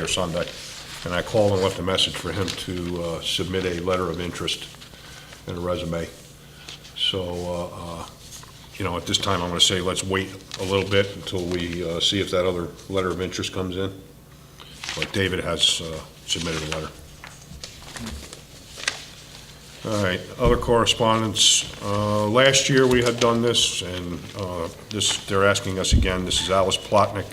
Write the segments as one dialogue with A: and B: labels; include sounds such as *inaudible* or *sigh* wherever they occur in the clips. A: or Sunday, and I called and left a message for him to uh, submit a letter of interest and a resume. So, uh, uh, you know, at this time, I'm going to say let's wait a little bit until we uh, see if that other letter of interest comes in. But David has uh, submitted a letter. All right, other correspondence. Uh, Last year, we had done this, and uh, this, they're asking us again. This is Alice Plotnick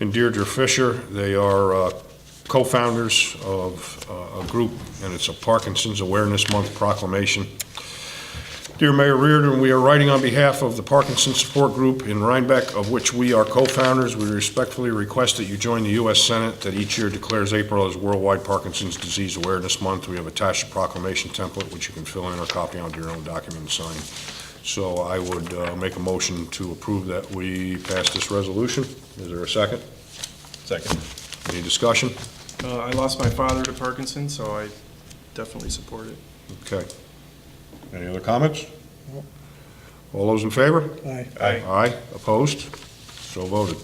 A: and Deirdre Fisher. They are uh, co-founders of uh, a group, and it's a Parkinson's Awareness Month proclamation. Dear Mayor Reardon, we are writing on behalf of the Parkinson's Support Group in Rhinebeck, of which we are co-founders. We respectfully request that you join the U.S. Senate that each year declares April as Worldwide Parkinson's Disease Awareness Month. We have attached a proclamation template, which you can fill in or copy onto your own document and sign. So I would uh, make a motion to approve that we pass this resolution. Is there a second? Second. Any discussion?
B: Uh, I lost my father to Parkinson, so I definitely support it.
A: Okay. Any other comments? All those in favor?
C: Aye.
B: Aye.
A: Aye, opposed? So voted.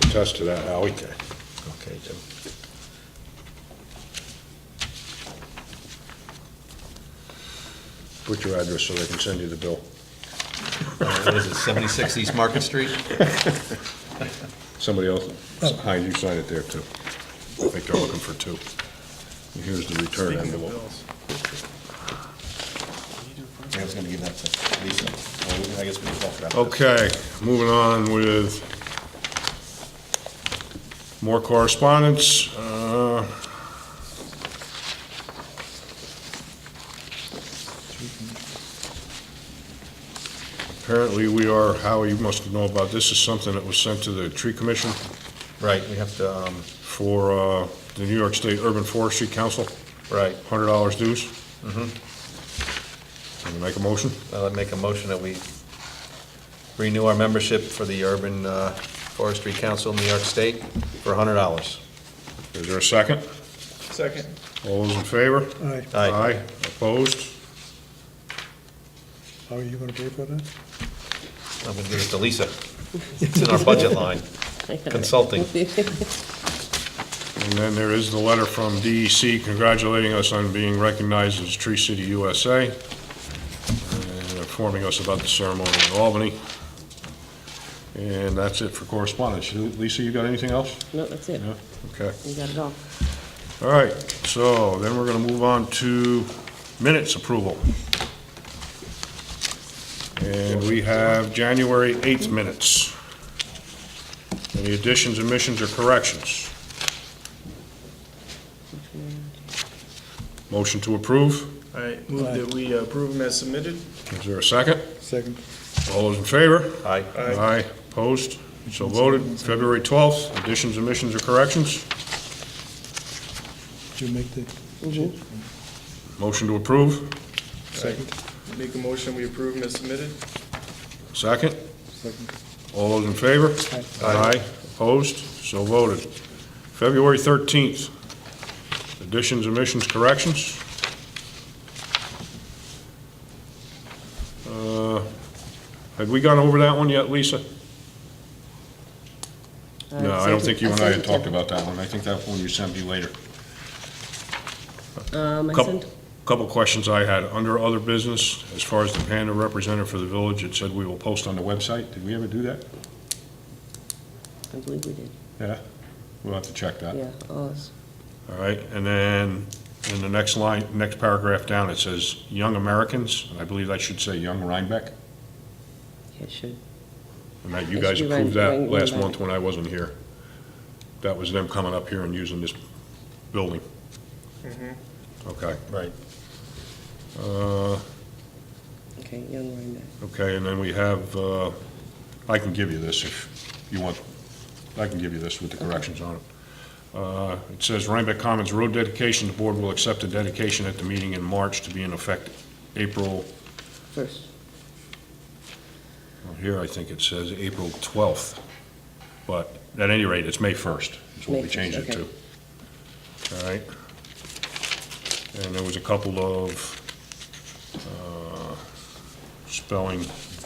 A: Attest to that, Howie.
D: Okay, Jim.
A: Put your address so they can send you the bill.
D: What is it, 76 East Market Street?
A: Somebody else, Hines, you sign it there too. I think they're looking for two. Here's the return
B: Speaking of
A: envelope.
B: bills.
D: I was going to give that to Lisa. Well, I guess we can talk about that.
A: Okay, moving on with more correspondence. Uh, Apparently, we are, Howie, you must know about this, is something that was sent to the tree commission
D: Right, we have to, um,
A: for uh, the New York State Urban Forestry Council,
D: right,
A: $100 dues. Mm-hmm. Can you make a motion?
D: I'll make a motion that we renew our membership for the Urban uh, Forestry Council in New York State for $100.
A: Is there a second?
B: Second.
A: All those in favor?
C: Aye.
D: Aye.
A: Opposed?
C: How are you gonna pay for that?
D: I'm going to give it to Lisa. It's in our budget line,
E: *laughs*
D: consulting.
A: And then there is the letter from DEC congratulating us on being recognized as Tree City USA and informing us about the ceremony in Albany. And that's it for correspondence. Lisa, you got anything else?
E: No, that's it.
A: No? Okay.
E: You got it all.
A: All right, so then we're going to move on to minutes approval. And we have January 8th minutes. Any additions, omissions, or corrections? Motion to approve.
B: I move that we approve them as submitted.
A: Is there a second?
C: Second.
A: All those in favor?
D: Aye.
A: Aye. Opposed? So voted. February 12th, additions, omissions, or corrections?
C: Did you make the
A: Motion to approve.
C: second?
B: Make a motion, we approve them as submitted.
A: Second?
C: Second.
A: All those in favor? Aye. Opposed? So voted. February 13th, additions, omissions, corrections? Uh, Had we gone over that one yet, Lisa? No, I don't think you and I had talked about that one. I think that one you sent me later.
E: Um, I
A: Couple,
E: sent,
A: couple questions I had. Under other business, as far as the panda representative for the village, it said we will post on the website. Did we ever do that?
E: I believe we did,
A: Yeah? We'll have to check that.
E: yeah, ours.
A: All right, and then in the next line, next paragraph down, it says "Young Americans," and I believe that should say "Young Rhinebeck,"
E: Yeah, it should.
A: and that you
E: It
A: guys
E: should be
A: approved
E: Rhine-
A: that
E: Rhinebeck.
A: last month when I wasn't here. That was them coming up here and using this building. Okay,
D: Right.
A: uh,
E: Okay, Young Rhinebeck.
A: okay, and then we have, uh, I can give you this if you want, I can give you this with the corrections on it. Uh, It says Rhinebeck Commons Road dedication, the board will accept a dedication at the meeting in March to be in effect April
E: First,
A: Well, Here, I think it says April 12th, but at any rate, it's May 1st is what
E: May
A: we
E: 1st,
A: changed it to. All right? And there was a couple of uh, spelling